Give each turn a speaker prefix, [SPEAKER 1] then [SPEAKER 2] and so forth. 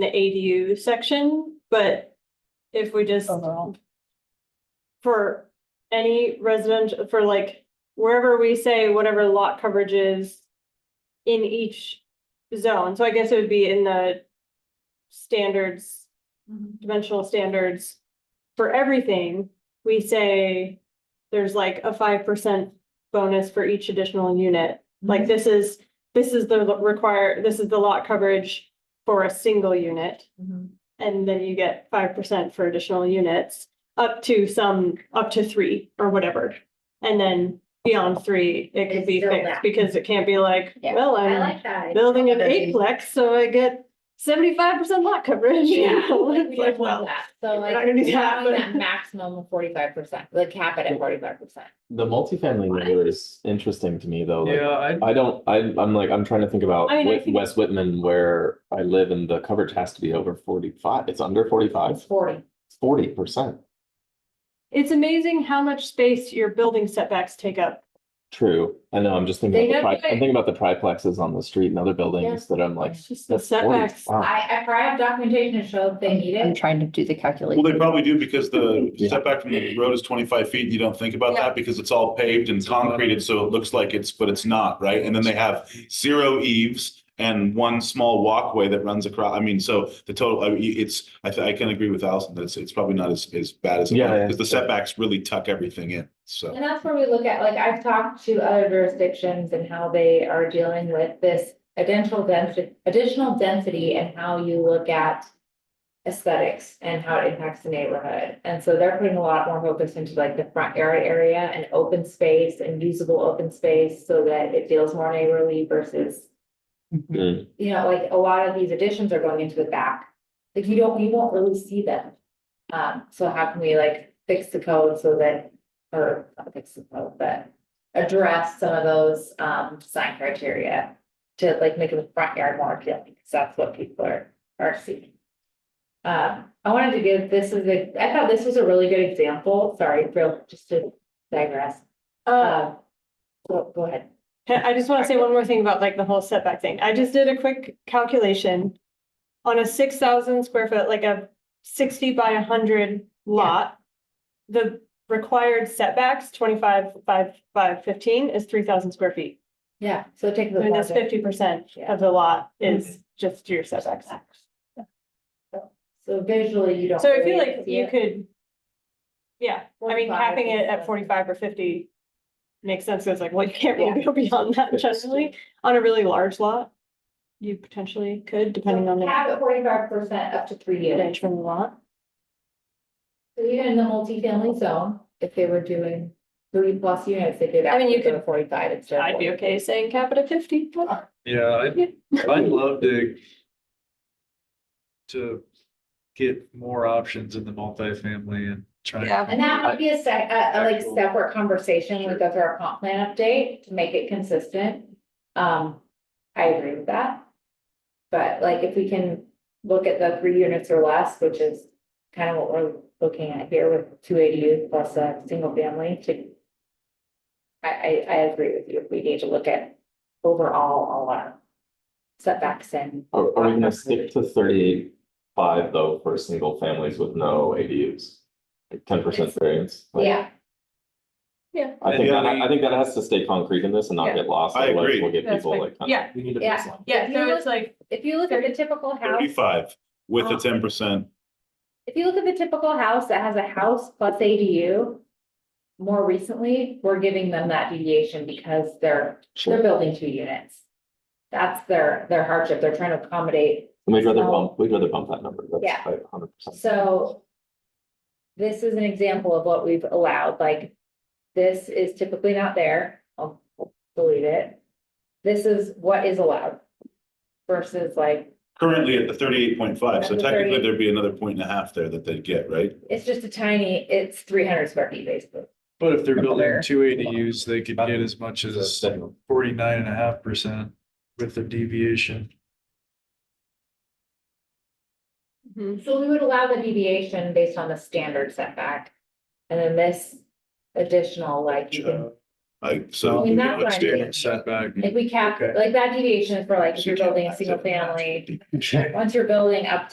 [SPEAKER 1] the ADU section, but if we just
[SPEAKER 2] overall.
[SPEAKER 1] for any residential, for like wherever we say whatever lot coverage is in each zone, so I guess it would be in the standards,
[SPEAKER 2] Mm-hmm.
[SPEAKER 1] dimensional standards for everything, we say there's like a five percent bonus for each additional unit.
[SPEAKER 2] Mm-hmm.
[SPEAKER 1] Like this is, this is the require, this is the lot coverage for a single unit.
[SPEAKER 2] Mm-hmm.
[SPEAKER 1] And then you get five percent for additional units, up to some, up to three or whatever. And then beyond three, it could be
[SPEAKER 3] It's still
[SPEAKER 1] fixed
[SPEAKER 3] that.
[SPEAKER 1] because it can't be like,
[SPEAKER 2] Yeah,
[SPEAKER 1] well,
[SPEAKER 3] I
[SPEAKER 1] I'm
[SPEAKER 3] like that.
[SPEAKER 1] building an
[SPEAKER 2] Building.
[SPEAKER 1] eightplex, so I get seventy-five percent lot coverage.
[SPEAKER 3] Yeah.
[SPEAKER 1] It's
[SPEAKER 3] We
[SPEAKER 1] like,
[SPEAKER 3] don't
[SPEAKER 1] well,
[SPEAKER 3] want that.
[SPEAKER 2] So
[SPEAKER 1] We're
[SPEAKER 2] like,
[SPEAKER 1] not gonna do that,
[SPEAKER 2] allowing
[SPEAKER 1] but-
[SPEAKER 2] that maximum of forty-five percent, like cap it at forty-five percent.
[SPEAKER 4] The multifamily neighborhood is interesting to me though. like,
[SPEAKER 5] Yeah, I,
[SPEAKER 4] I don't, I, I'm like, I'm trying to think about
[SPEAKER 1] I mean, I
[SPEAKER 4] Whit-
[SPEAKER 1] think-
[SPEAKER 4] West Whitman where I live and the coverage has to be over forty-five. It's under forty-five,
[SPEAKER 2] Forty.
[SPEAKER 4] forty percent.
[SPEAKER 1] It's amazing how much space your building setbacks take up.
[SPEAKER 4] True. I know, I'm just
[SPEAKER 2] They
[SPEAKER 4] thinking, about the
[SPEAKER 2] have
[SPEAKER 4] tri-
[SPEAKER 2] to-
[SPEAKER 4] I'm thinking about the triplexes on the street and other buildings that I'm like.
[SPEAKER 1] It's just the
[SPEAKER 4] that's 40.
[SPEAKER 1] setbacks.
[SPEAKER 4] Wow.
[SPEAKER 2] I, I have documentation to show if they need
[SPEAKER 6] I'm
[SPEAKER 2] it.
[SPEAKER 6] trying to do the
[SPEAKER 7] Well, they
[SPEAKER 6] calculation.
[SPEAKER 7] probably do because the
[SPEAKER 4] Yeah.
[SPEAKER 7] setback from the road is twenty-five feet. and You don't think about
[SPEAKER 2] Yeah.
[SPEAKER 7] that because it's all paved and concreted, so it looks like it's, but it's not, right? And then they have zero eaves and one small walkway that runs across. I mean, so the total, I, mean, it's, I, th- I can agree with Allison, that it's, it's probably not as, as bad as. it
[SPEAKER 4] Yeah, yeah.
[SPEAKER 7] Because the setbacks really tuck everything in, so.
[SPEAKER 2] And that's where we look at, like, I've talked to other jurisdictions and how they are dealing with this additional density, additional density and how you look at aesthetics and how it impacts the neighborhood. And so they're putting a lot more focus into like the front yard area and open space and usable open space so that it feels more neighborly versus
[SPEAKER 4] Mm.
[SPEAKER 2] you know, like a lot of these additions are going into the back. Like you don't, you won't really see them. Um, so how can we like fix the code so that, or not fix the code, but address some of those um sign criteria to like make the front yard more appealing, because that's what people are are seeking. Um, I wanted to give, this is a, I thought this was a really good example, sorry, real, just to digress.
[SPEAKER 1] Uh,
[SPEAKER 2] Um, go, go ahead.
[SPEAKER 1] I just want to say one more thing about like the whole setback thing. I just did a quick calculation. On a six thousand square foot, like a sixty by hundred lot. The required setbacks, twenty-five, five, five, fifteen is three thousand square feet.
[SPEAKER 2] Yeah, so take
[SPEAKER 1] I
[SPEAKER 2] the.
[SPEAKER 1] mean, that's fifty percent
[SPEAKER 2] Yeah.
[SPEAKER 1] of the lot is just your setbacks.
[SPEAKER 2] So visually, you don't.
[SPEAKER 1] So I feel
[SPEAKER 2] really
[SPEAKER 1] like
[SPEAKER 2] see
[SPEAKER 1] you
[SPEAKER 2] it.
[SPEAKER 1] could. Yeah, I mean,
[SPEAKER 2] 45
[SPEAKER 1] capping it
[SPEAKER 2] is-
[SPEAKER 1] at forty-five or fifty makes sense, 'cause like, well, you can't really go beyond that generally, on a really large lot. You potentially could, depending on the
[SPEAKER 2] Cap at forty-five percent up to three units.
[SPEAKER 1] footage from the lot.
[SPEAKER 2] So even in the multifamily zone, if they were doing three plus units, they could.
[SPEAKER 1] I mean, you
[SPEAKER 2] actually go to Forty-five instead. of
[SPEAKER 1] I'd be
[SPEAKER 2] 40.
[SPEAKER 1] okay saying cap it at fifty. but-
[SPEAKER 5] yeah,
[SPEAKER 1] Yeah.
[SPEAKER 5] I'd, I'd love to to get more options in the multifamily and try.
[SPEAKER 1] Yeah.
[SPEAKER 2] And that would be a sec, a, a like
[SPEAKER 5] Actual-
[SPEAKER 2] separate conversation when we go through our comp plan update to make it consistent. Um, I agree with that. But like if we can look at the three units or less, which is kind of what we're looking at here with two ADUs plus a single family to. I, I, I agree with you. We need to look at overall all our setbacks and.
[SPEAKER 4] Are, are we gonna stick to thirty-five though for single families with no ADUs? Ten percent variance? Like,
[SPEAKER 2] Yeah,
[SPEAKER 4] I think, that-
[SPEAKER 5] Yeah.
[SPEAKER 4] I think that has to stay concrete in this and not
[SPEAKER 2] Yeah.
[SPEAKER 4] get lost.
[SPEAKER 7] I
[SPEAKER 4] otherwise
[SPEAKER 7] agree.
[SPEAKER 4] We'll get
[SPEAKER 1] That's
[SPEAKER 4] people
[SPEAKER 1] fine.
[SPEAKER 4] like. kinda-
[SPEAKER 2] Yeah.
[SPEAKER 4] We need a
[SPEAKER 2] Yeah.
[SPEAKER 4] baseline.
[SPEAKER 1] Yeah, so it's like,
[SPEAKER 2] if you look at the typical house.
[SPEAKER 7] Thirty-five with
[SPEAKER 2] Oh.
[SPEAKER 7] a ten percent.
[SPEAKER 2] if you look at the typical house that has a house plus ADU. More recently, we're giving them that deviation because they're, they're
[SPEAKER 4] Sure.
[SPEAKER 2] building two units. That's their, their hardship. They're trying to accommodate,
[SPEAKER 4] We'd rather
[SPEAKER 2] So-
[SPEAKER 4] bump, we'd rather bump that number.
[SPEAKER 2] Yeah.
[SPEAKER 4] That's like hundred percent.
[SPEAKER 2] so. This is an example of what we've allowed, like. This is typically not there. I'll I'll delete it. This is what is allowed. Versus like,
[SPEAKER 7] Currently at the thirty-eight point five, so
[SPEAKER 2] At the
[SPEAKER 7] technically
[SPEAKER 2] 38.
[SPEAKER 7] there'd be another point and a half there that they'd get, right?
[SPEAKER 2] it's just a tiny, it's three hundred square feet basically.
[SPEAKER 5] But if they're building
[SPEAKER 2] There.
[SPEAKER 5] two ADUs, they could get as much as forty-nine and a half percent with the deviation.
[SPEAKER 1] mhm.
[SPEAKER 2] So we would allow the deviation based on the standard setback. And then this additional, like, you can-
[SPEAKER 7] Like,
[SPEAKER 2] I
[SPEAKER 7] so.
[SPEAKER 2] mean, that's what I
[SPEAKER 7] Standard.
[SPEAKER 2] did.
[SPEAKER 5] Setback.
[SPEAKER 2] if we cap,
[SPEAKER 5] Okay.
[SPEAKER 2] like that deviation is for like, if you're building a single family, once you're building up to